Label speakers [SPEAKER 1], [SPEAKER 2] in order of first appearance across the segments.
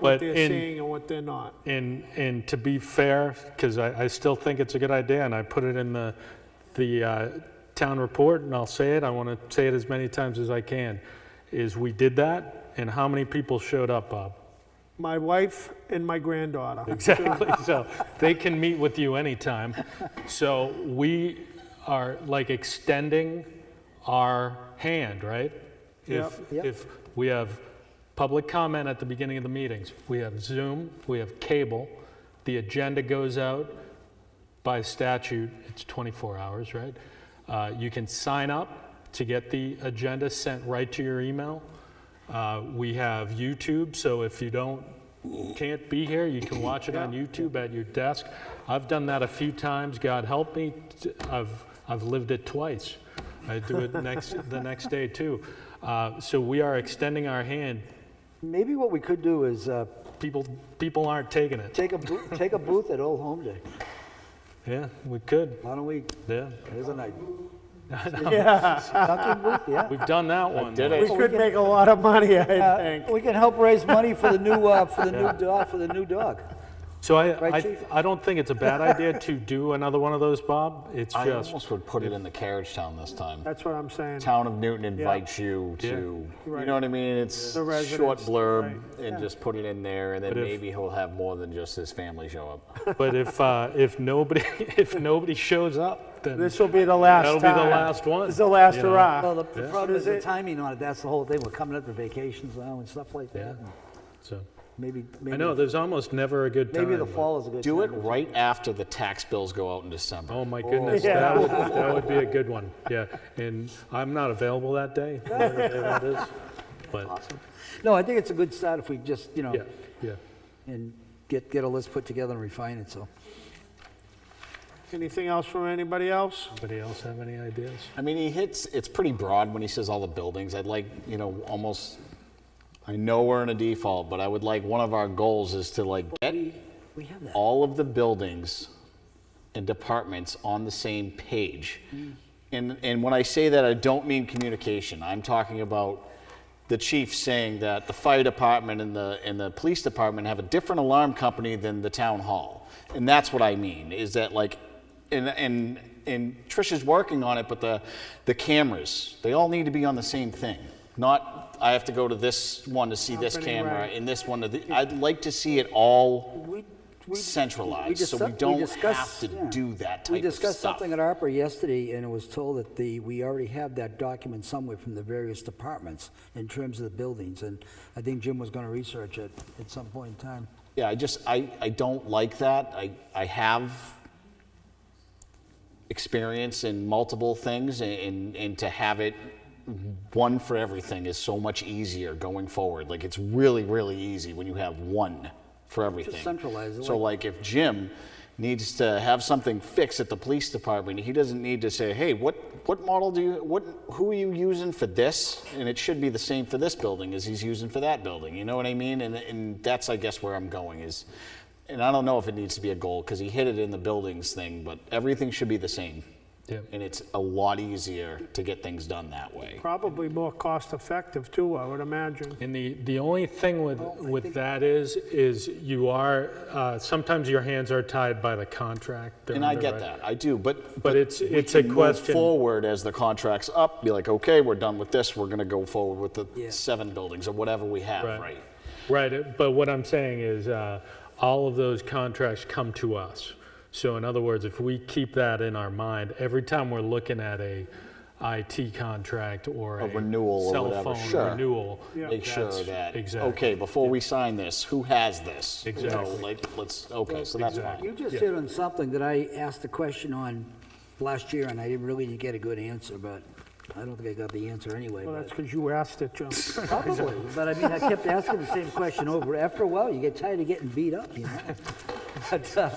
[SPEAKER 1] But
[SPEAKER 2] what they're
[SPEAKER 1] in-
[SPEAKER 2] saying and what they're not.
[SPEAKER 1] And, and to be fair, because I, I still think it's a good idea, and I put it in the, the uh, town report, and I'll say it, I want to say it as many times as I can, is we did that, and how many people showed up, Bob?
[SPEAKER 2] My wife and my granddaughter.
[SPEAKER 1] Exactly, so they can meet with you anytime. So we are like extending our hand, right? If,
[SPEAKER 3] Yep. Yep.
[SPEAKER 1] if we have public comment at the beginning of the meetings, we have Zoom, we have cable, the agenda goes out by statute, it's 24 hours, right? Uh, You can sign up to get the agenda sent right to your email. Uh, We have YouTube, so if you don't, can't be here, you can watch it on YouTube at your desk. I've done that a few times, God help me, t- I've, I've lived it twice. I do it next, the next day too. Uh, So we are extending our hand.
[SPEAKER 3] Maybe what we could do is uh,
[SPEAKER 1] People, people aren't taking it.
[SPEAKER 3] take a, boo- take a booth at Old Home Day.
[SPEAKER 1] Yeah, we could,
[SPEAKER 3] Why don't we,
[SPEAKER 1] yeah.
[SPEAKER 3] there's an idea.
[SPEAKER 2] Yeah,
[SPEAKER 3] Dunkin' booth, yeah.
[SPEAKER 1] We've done that one.
[SPEAKER 4] did
[SPEAKER 1] though.
[SPEAKER 4] it.
[SPEAKER 2] we could make a lot of money, I
[SPEAKER 3] Uh,
[SPEAKER 2] think.
[SPEAKER 3] We can help raise money for the new, uh, for the new dog, for the new dog.
[SPEAKER 1] So I,
[SPEAKER 3] Right,
[SPEAKER 1] I,
[SPEAKER 3] Chief?
[SPEAKER 1] I don't think it's a bad idea to do another one of those, Bob. It's
[SPEAKER 4] I
[SPEAKER 1] just,
[SPEAKER 4] almost would put it in the carriage town this time.
[SPEAKER 2] That's what I'm saying.
[SPEAKER 4] Town of Newton invites you to,
[SPEAKER 1] Yeah.
[SPEAKER 4] you
[SPEAKER 2] Right.
[SPEAKER 4] know what I mean? It's
[SPEAKER 2] The
[SPEAKER 4] short
[SPEAKER 2] residents,
[SPEAKER 4] blurb and just put it in there and then
[SPEAKER 1] But if-
[SPEAKER 4] maybe he'll have more than just his family show up.
[SPEAKER 1] but if, uh, if nobody, if nobody shows up, then
[SPEAKER 2] This will be the last
[SPEAKER 1] that'll
[SPEAKER 2] time.
[SPEAKER 1] be the last one.
[SPEAKER 2] This is the last
[SPEAKER 1] you know?
[SPEAKER 2] hurrah.
[SPEAKER 3] Well, the the problem is the timing on it, that's the whole thing. We're coming up to vacations now and stuff like that.
[SPEAKER 1] Yeah. So,
[SPEAKER 3] Maybe,
[SPEAKER 1] I know,
[SPEAKER 3] maybe,
[SPEAKER 1] there's almost never a good time.
[SPEAKER 3] maybe the
[SPEAKER 1] but-
[SPEAKER 3] fall is a good time.
[SPEAKER 4] Do it right after the tax bills go out in December.
[SPEAKER 1] Oh, my goodness,
[SPEAKER 2] Yeah.
[SPEAKER 1] that would, that would be a good one, yeah. And I'm not available that day, whatever day that is. But,
[SPEAKER 3] No, I think it's a good start if we just, you know,
[SPEAKER 1] yeah, yeah.
[SPEAKER 3] and get, get a list put together and refine it, so.
[SPEAKER 2] Anything else from anybody else?
[SPEAKER 1] Anybody else have any ideas?
[SPEAKER 4] I mean, he hits, it's pretty broad when he says all the buildings. I'd like, you know, almost, I know we're in a default, but I would like, one of our goals is to like get
[SPEAKER 3] We have that.
[SPEAKER 4] all of the buildings and departments on the same page.
[SPEAKER 3] Mm.
[SPEAKER 4] And, and when I say that, I don't mean communication. I'm talking about the chief saying that the fire department and the, and the police department have a different alarm company than the town hall. And that's what I mean, is that like, and, and, and Tricia's working on it, but the, the cameras, they all need to be on the same thing. Not, I have to go to this one to see this
[SPEAKER 2] Company,
[SPEAKER 4] camera
[SPEAKER 2] right.
[SPEAKER 4] and this one to the, I'd like to see it all
[SPEAKER 3] We- we- we
[SPEAKER 4] centralized, so
[SPEAKER 3] discuss-
[SPEAKER 4] we don't
[SPEAKER 3] discussed-
[SPEAKER 4] have to
[SPEAKER 3] yeah.
[SPEAKER 4] do that type
[SPEAKER 3] We
[SPEAKER 4] of
[SPEAKER 3] discussed
[SPEAKER 4] stuff.
[SPEAKER 3] something at ARPA yesterday, and it was told that the, we already have that document somewhere from the various departments in terms of the buildings, and I think Jim was gonna research it at some point in time.
[SPEAKER 4] yeah, I just I, I don't like that. I I have experience in multiple things, and, and and to have it one for everything is so much easier going forward. Like it's really really easy when you have one for everything.
[SPEAKER 3] centralize it,
[SPEAKER 4] So like if Jim needs to have something fixed at the police department, he doesn't need to say, "Hey, what what model do you what who are you using for this?" And it should be the same for this building as he's using for that building. You know what I mean? And and that's I guess where I'm going is and I don't know if it needs to be a goal cuz he hit it in the buildings thing, but everything should be the same.
[SPEAKER 1] Yep.
[SPEAKER 4] And it's a lot easier to get things done that way.
[SPEAKER 2] Probably more cost-effective, too, I would imagine.
[SPEAKER 1] And the, the only thing with, with that is, is you are, uh, sometimes your hands are tied by the contract. They're
[SPEAKER 4] And I get
[SPEAKER 1] underwritten.
[SPEAKER 4] that. I do, but
[SPEAKER 1] But it's,
[SPEAKER 4] we
[SPEAKER 1] it's a
[SPEAKER 4] can move
[SPEAKER 1] question,
[SPEAKER 4] forward as the contract's up, be like, okay, we're done with this, we're gonna go forward with the seven buildings or whatever we have,
[SPEAKER 1] Right.
[SPEAKER 4] right?
[SPEAKER 1] right, uh, but what I'm saying is, uh, all of those contracts come to us. So in other words, if we keep that in our mind, every time we're looking at a IT contract or a
[SPEAKER 4] renewal or whatever,
[SPEAKER 1] Cell
[SPEAKER 4] sure.
[SPEAKER 1] phone renewal.
[SPEAKER 4] Make sure
[SPEAKER 1] that's-
[SPEAKER 4] that,
[SPEAKER 1] Exactly.
[SPEAKER 4] okay, before we sign this, who has this? You know,
[SPEAKER 1] Exactly.
[SPEAKER 4] like, let's, okay, so that's
[SPEAKER 3] You
[SPEAKER 4] fine.
[SPEAKER 3] just hit on something that I asked a question on last year, and I didn't really get a good answer, but I don't think I got the answer anyway,
[SPEAKER 2] Well,
[SPEAKER 3] but-
[SPEAKER 2] that's because you asked it, Joe.
[SPEAKER 3] Probably, but I mean, I kept asking the same question over. After a while, you get tired of getting beat up, you know? But, uh,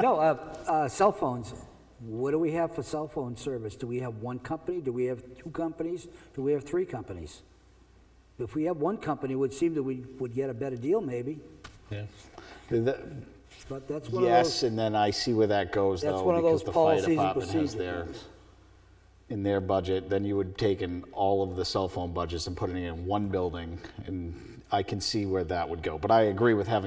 [SPEAKER 3] no, uh, uh, cell phones. What do we have for cell phone service? Do we have one company? Do we have two companies? Do we have three companies? If we have one company, it would seem that we would get a better deal maybe,
[SPEAKER 1] Yeah.
[SPEAKER 4] The-
[SPEAKER 3] but that's one of those.
[SPEAKER 4] Yes, and then I see where that goes
[SPEAKER 3] That's
[SPEAKER 4] though,
[SPEAKER 3] one of
[SPEAKER 4] because
[SPEAKER 3] those
[SPEAKER 4] the fire
[SPEAKER 3] policies and
[SPEAKER 4] department has
[SPEAKER 3] procedures.
[SPEAKER 4] their, in their budget, then you would take in all of the cell phone budgets and putting it in one building, and I can see where that would go. But I agree with having